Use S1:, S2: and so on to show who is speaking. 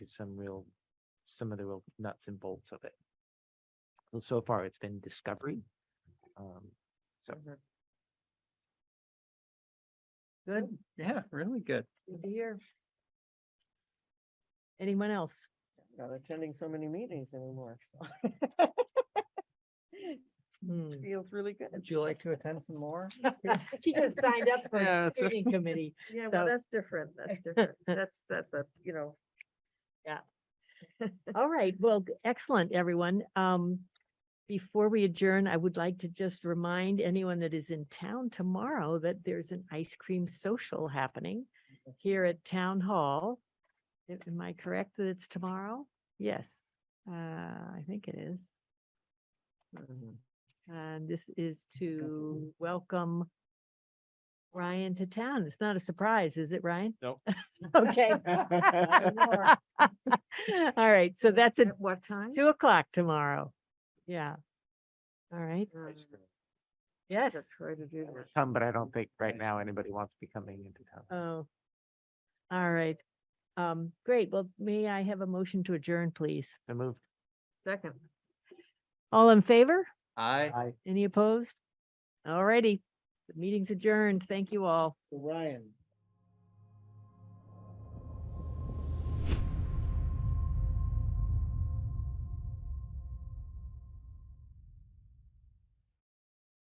S1: some real, some of the real nuts and bolts of it. So, so far it's been discovery. Um, so
S2: Good, yeah, really good.
S3: Good to hear. Anyone else?
S4: Not attending so many meetings anymore.
S3: Hmm.
S4: Feels really good.
S2: Would you like to attend some more?
S3: She just signed up for
S2: Yeah,
S3: a
S2: that's right.
S3: screening committee.
S4: Yeah,
S3: So-
S4: well, that's different. That's different. That's, that's a, you know,
S3: All right, well, g- excellent, everyone. Um, before we adjourn, I would like to just remind anyone that is in town tomorrow that there's an ice cream social happening here at Town Hall. Am- Am I correct that it's tomorrow? Yes, uh, I think it is. And this is to welcome Ryan to town. It's not a surprise, is it, Ryan?
S1: Nope.
S3: Okay. All right, so that's at
S4: at what time?
S3: two o'clock tomorrow. Yeah. All right,
S4: Um,
S3: yes.
S4: I'll Try to do that.
S1: Come, but I don't think right now anybody wants to be coming into town.
S3: Oh. All right. Um, great. Well, may I have a motion to adjourn, please?
S1: So moved.
S4: Second.
S3: All in favor?
S2: I.
S1: Aye.
S3: Any opposed? All righty. The meeting's adjourned. Thank you all.
S2: Ryan,